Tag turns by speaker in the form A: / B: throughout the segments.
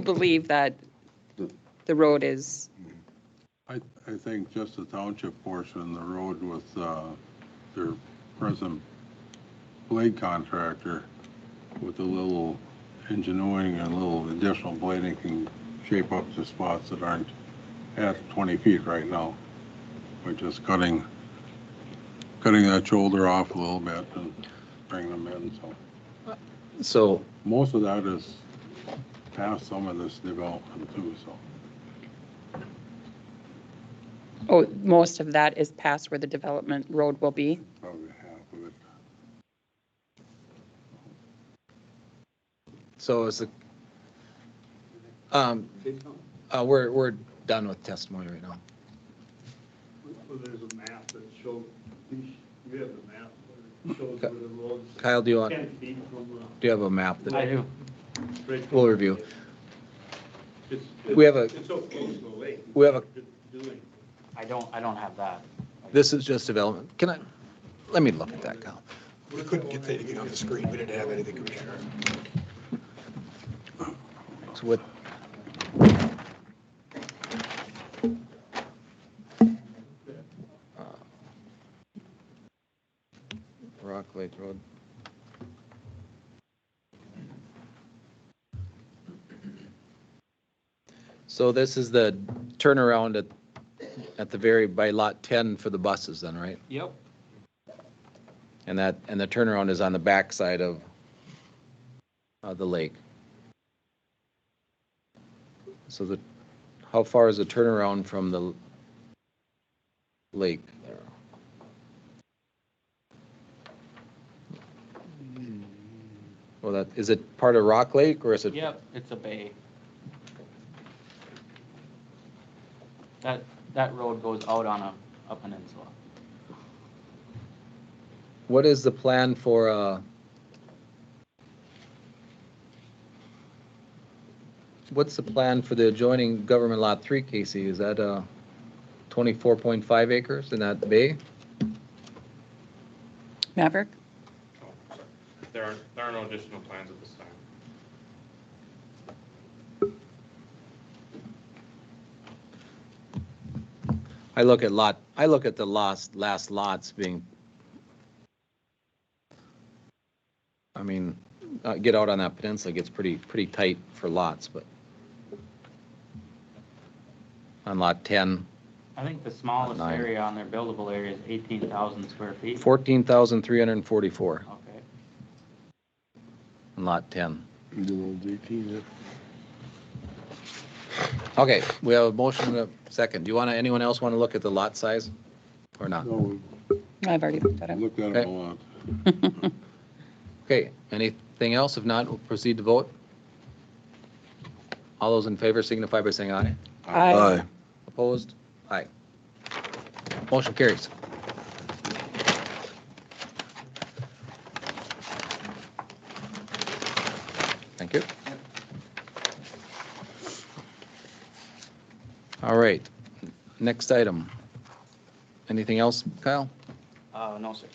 A: believe that the road is,
B: I, I think just the township portion, the road with uh, their present blade contractor with a little engineering and a little additional blading can shape up the spots that aren't at 20 feet right now. By just cutting, cutting that shoulder off a little bit and bring them in, so.
C: So
B: Most of that is past some of this development too, so.
A: oh, most of that is past where the development road will be.
B: Probably half of it.
C: So is the, um, uh, we're, we're done with testimony right now.
D: Well, there's a map that shows, you sh- you have a map that shows where the road's
C: Kyle, do you want,
D: ten feet from
C: do you have a map that,
D: the. bridge.
C: We'll review.
D: It's-
C: We have a-
D: It's so close to the lake.
C: We have a-
D: Doing.
E: I don't, I don't have that.
C: this is just development? Can I, let me look at that, Kyle.
F: We couldn't get anything on the screen. We didn't have anything, Commissioner.
C: It's with, Rock Lake Road. So this is the turnaround at, at the very, by lot 10 for the buses then, right?
E: Yep.
C: And that, and the turnaround is on the backside of, of the lake. So the, how far is the turnaround from the lake there? Well, that, is it part of Rock Lake or is it?
E: Yep, it's a bay. That, that road goes out on a, a peninsula.
C: What is the plan for, uh, what's the plan for the adjoining government lot three, Casey? Is that, uh, twenty-four point five acres in that bay?
A: Maverick?
G: There are, there are no additional plans at this time.
C: I look at lot, I look at the last, last lots being, I mean, uh, get out on that peninsula gets pretty, pretty tight for lots, but on lot ten,
E: I think the smallest
C: Nine.
E: area on their buildable area is eighteen thousand square feet.
C: fourteen thousand three hundred and forty-four
E: Okay.
C: on lot ten.
B: yeah.
C: Okay, we have a motion and a second. Do you want to, anyone else want to look at the lot size or not?
B: No,
A: I've already looked at
B: we
A: it.
B: looked at it a lot.
C: Okay, anything else? If not, we'll proceed to vote. All those in favor signify by saying aye.
A: I-
C: Opposed? Aye. Motion carries. Thank you. All right, next item. Anything else, Kyle?
E: Uh, no, sir.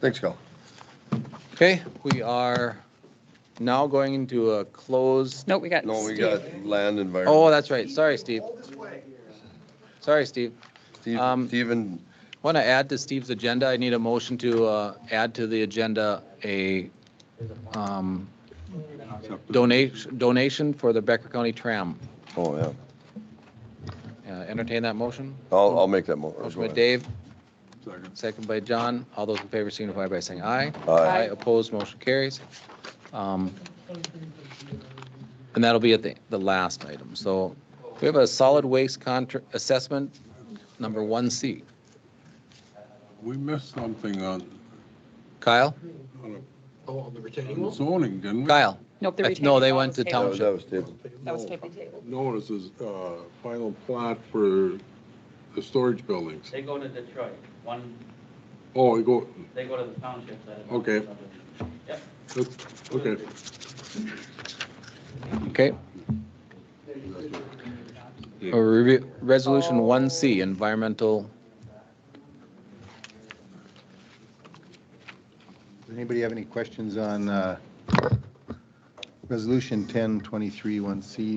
F: Thanks, Kyle.
C: Okay, we are now going into a close.
A: No, we got.
F: No, we
A: Steve.
F: got land environment.
C: Oh, that's right. Sorry, Steve. Sorry, Steve. um,
F: Steven,
C: Want to add to Steve's agenda? I need a motion to uh, add to the agenda a um,
B: Accept it.
C: donation, donation for the Becker County Tram.
F: oh, yeah.
C: Uh, Entertain that motion?
F: I'll, I'll make that mo-
C: Motion
F: go
C: by
F: ahead.
C: Dave,
B: Second.
C: second by John. All those in favor signify by saying aye.
A: Aye.
F: Aye.
C: Opposed, motion carries. Um, And that'll be at the, the last item. So we have a solid waste contract assessment, number 1C.
B: We missed something on,
C: Kyle?
B: on
F: Oh, on the retaining
B: on zoning, didn't we?
C: Kyle?
A: Nope, the
C: No,
A: retaining
C: they
A: wall
C: went
A: was
C: to
A: tabled.
F: That
C: town.
F: was, that was David.
A: That was tabled.
B: Notice is, uh, final plot for the storage buildings.
E: They go to Detroit, one,
B: Oh, you go,
E: they go to the township that.
B: Okay. that's- okay.
C: Okay. A review- Resolution 1C, environmental,
H: Does anybody have any questions on uh,
D: Resolution 1023 one c